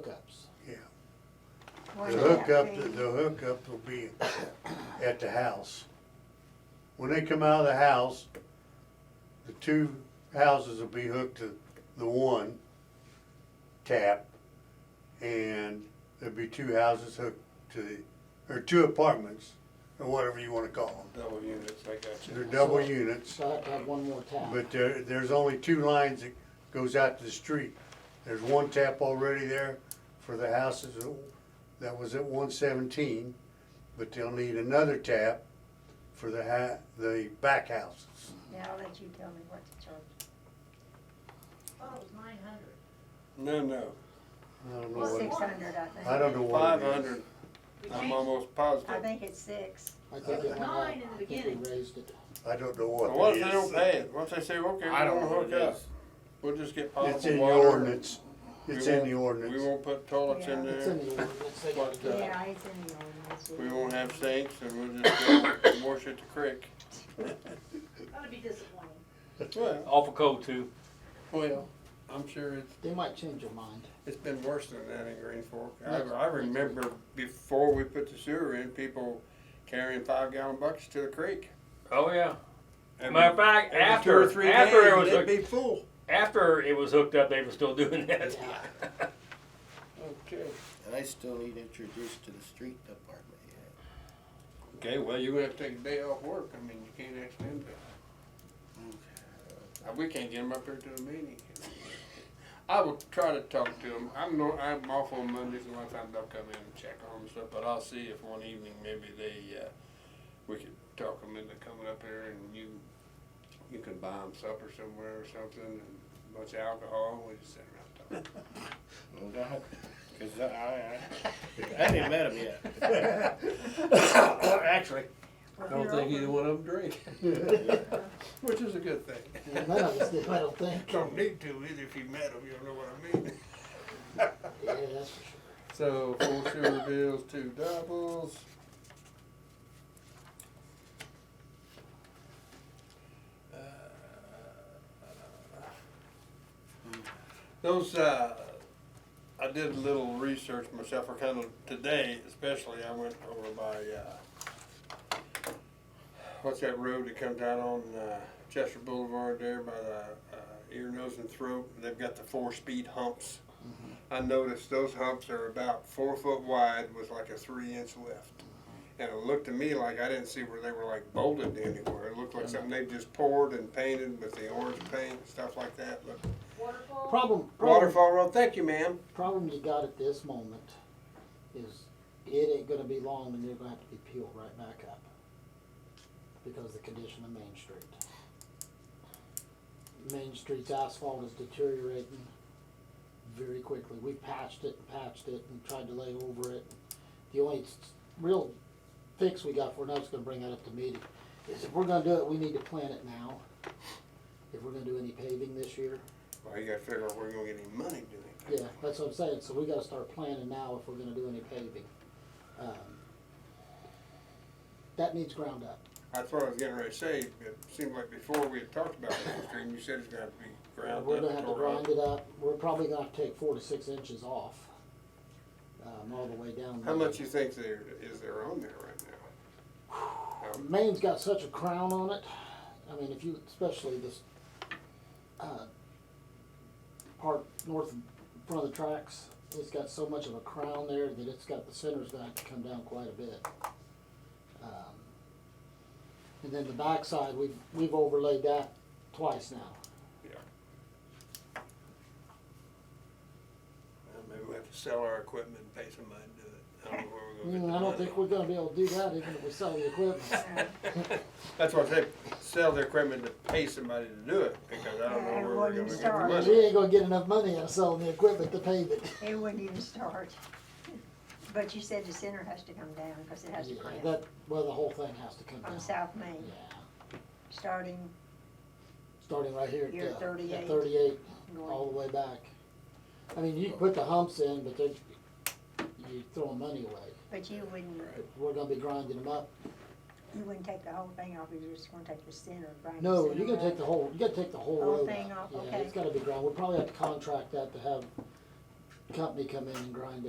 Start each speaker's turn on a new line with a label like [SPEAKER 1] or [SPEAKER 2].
[SPEAKER 1] hookups.
[SPEAKER 2] yeah.
[SPEAKER 3] Why
[SPEAKER 2] The
[SPEAKER 3] would that
[SPEAKER 2] hookup,
[SPEAKER 3] be?
[SPEAKER 2] the hookup will be at the house. When they come out of the house, the two houses will be hooked to the one tap. And there'll be two houses hooked to the, or two apartments, or whatever you wanna call them.
[SPEAKER 4] Double units, I got
[SPEAKER 2] They're
[SPEAKER 4] you.
[SPEAKER 2] double units,
[SPEAKER 1] So I have to have one more tap.
[SPEAKER 2] but there, there's only two lines that goes out to the street. There's one tap already there for the houses that was at one seventeen, but they'll need another tap for the ha, the back houses.
[SPEAKER 3] Now that you tell me what to charge.
[SPEAKER 5] Thought Oh, it was nine hundred.
[SPEAKER 4] No, no,
[SPEAKER 2] I don't know
[SPEAKER 3] Well, six
[SPEAKER 2] what,
[SPEAKER 3] hundred, I think.
[SPEAKER 2] I don't know what
[SPEAKER 4] five
[SPEAKER 2] it is.
[SPEAKER 4] hundred, I'm almost positive.
[SPEAKER 3] I think it's six.
[SPEAKER 1] I think
[SPEAKER 6] uh,
[SPEAKER 5] It was
[SPEAKER 1] it went up.
[SPEAKER 5] nine in the
[SPEAKER 1] I think we
[SPEAKER 5] beginning.
[SPEAKER 1] Raised it.
[SPEAKER 2] I don't know
[SPEAKER 4] But What
[SPEAKER 2] what
[SPEAKER 4] if
[SPEAKER 2] it
[SPEAKER 4] they don't
[SPEAKER 2] is.
[SPEAKER 4] pay it, what if they say, okay, we
[SPEAKER 7] I don't
[SPEAKER 4] don't
[SPEAKER 7] know what
[SPEAKER 4] hook
[SPEAKER 7] it
[SPEAKER 4] up,
[SPEAKER 7] is.
[SPEAKER 4] we'll just get
[SPEAKER 2] It's
[SPEAKER 4] potable
[SPEAKER 2] in the
[SPEAKER 4] water.
[SPEAKER 2] ordinance,
[SPEAKER 4] We
[SPEAKER 2] it's in
[SPEAKER 4] won't-
[SPEAKER 2] the
[SPEAKER 4] We
[SPEAKER 2] ordinance.
[SPEAKER 4] won't put toilets in
[SPEAKER 3] Yeah.
[SPEAKER 1] It's in
[SPEAKER 4] there,
[SPEAKER 1] the ordinance, they got it
[SPEAKER 4] Yeah.
[SPEAKER 3] Yeah, it's in the ordinance.
[SPEAKER 4] we won't have sinks, and we'll just go wash at the creek.
[SPEAKER 5] That'd be disappointing.
[SPEAKER 4] Well, oh,
[SPEAKER 7] Awful cold too.
[SPEAKER 4] well, I'm sure it's,
[SPEAKER 1] They might change their mind.
[SPEAKER 4] it's been worse than that in Green Fork. I,
[SPEAKER 1] That's-
[SPEAKER 4] I remember before we put the sewer in, people carrying five gallon buckets to the creek.
[SPEAKER 7] Oh yeah.
[SPEAKER 4] Every-
[SPEAKER 7] Matter of fact,
[SPEAKER 4] every two or
[SPEAKER 7] after
[SPEAKER 4] three
[SPEAKER 7] after
[SPEAKER 4] days,
[SPEAKER 7] it was
[SPEAKER 4] they'd
[SPEAKER 7] hooked,
[SPEAKER 4] be full.
[SPEAKER 7] after it was hooked up, they were still doing that.
[SPEAKER 4] Okay.
[SPEAKER 6] And I still need introduced to the street department yet.
[SPEAKER 4] Okay, well, you're gonna have to take a day off work, I mean, you can't extend that. Uh, We can't get them up here to the meeting. I will try to talk to them, I'm no, I'm off on Mondays, and a lot of times they'll come in and check on them and stuff, but I'll see if one evening maybe they, uh, we could talk them into coming up here and you, you can buy them supper somewhere or something, and a bunch of alcohol, we just sit around talking.
[SPEAKER 6] No doubt. 'Cause I, I, I haven't met him yet.
[SPEAKER 4] Actually, I don't think either one of them drink, which is a good thing.
[SPEAKER 1] None of us did, I don't think. Yeah,
[SPEAKER 4] Don't need to either if you met them, you don't know what I mean.
[SPEAKER 1] that's for sure.
[SPEAKER 4] So four sewer bills, two doubles. Those, uh, I did a little research myself, or kind of today especially, I went over by, uh, what's that road that comes out on, uh, Chester Boulevard there by the, uh, ear, nose and throat, they've got the four-speed humps. I noticed those humps are about four foot wide with like a three inch lift. And it looked to me like I didn't see where they were like bolted anywhere. It looked like something they just poured and painted with the orange paint, stuff like that. Look,
[SPEAKER 5] Waterfall?
[SPEAKER 1] Problem, problem,
[SPEAKER 4] Waterfall Road, thank you, ma'am.
[SPEAKER 1] problem you got at this moment is it ain't gonna be long and they're gonna have to be peeled right back up. Because the condition of Main Street. Main Street's asphalt is deteriorating very quickly. We patched it and patched it and tried to lay over it. The only s- real fix we got for, and I was gonna bring that up to meeting, is if we're gonna do it, we need to plan it now. If we're gonna do any paving this year,
[SPEAKER 4] Well, you gotta figure out where you're gonna get any money doing it.
[SPEAKER 1] yeah, that's what I'm saying, so we gotta start planning now if we're gonna do any paving. Um, That needs ground up.
[SPEAKER 4] That's what I was getting ready to say. It seemed like before we had talked about this stream, you said it's gonna be ground
[SPEAKER 1] We're gonna
[SPEAKER 4] up,
[SPEAKER 1] have to
[SPEAKER 4] tore
[SPEAKER 1] grind
[SPEAKER 4] up.
[SPEAKER 1] it up, we're probably gonna have to take four to six inches off, um, all the way down.
[SPEAKER 4] How
[SPEAKER 1] there.
[SPEAKER 4] much you think there, is there on there right now?
[SPEAKER 1] The
[SPEAKER 4] Um,
[SPEAKER 1] Main's got such a crown on it, I mean, if you, especially this, uh, part north, in front of the tracks, it's got so much of a crown there that it's got, the center's gonna have to come down quite a bit. Um, And then the backside, we've, we've overlaid that twice now.
[SPEAKER 4] Uh, Maybe we have to sell our equipment and pay somebody to do it. I don't know where we're gonna get
[SPEAKER 1] Mm,
[SPEAKER 4] the
[SPEAKER 1] I don't
[SPEAKER 4] money.
[SPEAKER 1] think we're gonna be able to do that even if we sell the equipment.
[SPEAKER 3] Uh,
[SPEAKER 4] That's what I said, sell the equipment to pay somebody to do it, because I don't know
[SPEAKER 3] Yeah,
[SPEAKER 4] where we're
[SPEAKER 3] it
[SPEAKER 4] gonna
[SPEAKER 3] wouldn't
[SPEAKER 4] get the
[SPEAKER 3] start.
[SPEAKER 1] We
[SPEAKER 4] money.
[SPEAKER 1] ain't gonna get enough money out of selling the equipment to pave it.
[SPEAKER 3] It wouldn't even start. But you said the center has to come down, cause it has to
[SPEAKER 1] Yeah,
[SPEAKER 3] clamp
[SPEAKER 1] That, well, the whole thing has to come down.
[SPEAKER 3] from South Main,
[SPEAKER 1] Yeah.
[SPEAKER 3] starting
[SPEAKER 1] starting right here
[SPEAKER 3] Here,
[SPEAKER 1] at, uh, at
[SPEAKER 3] 38.
[SPEAKER 1] thirty-eight, all
[SPEAKER 3] north.
[SPEAKER 1] the way back. I mean, you can put the humps in, but they're, you're throwing money away.
[SPEAKER 3] But you wouldn't,
[SPEAKER 1] We're gonna be grinding them up.
[SPEAKER 3] you wouldn't take the whole thing off, you're just gonna take the center, grind the
[SPEAKER 1] No,
[SPEAKER 3] center
[SPEAKER 1] you're gonna take
[SPEAKER 3] up.
[SPEAKER 1] the whole, you gotta take the whole
[SPEAKER 3] Whole
[SPEAKER 1] road
[SPEAKER 3] thing
[SPEAKER 1] out.
[SPEAKER 3] off,
[SPEAKER 1] Yeah, it's
[SPEAKER 3] okay.
[SPEAKER 1] gotta be ground, we'll probably have to contract that to have company come in and grind it.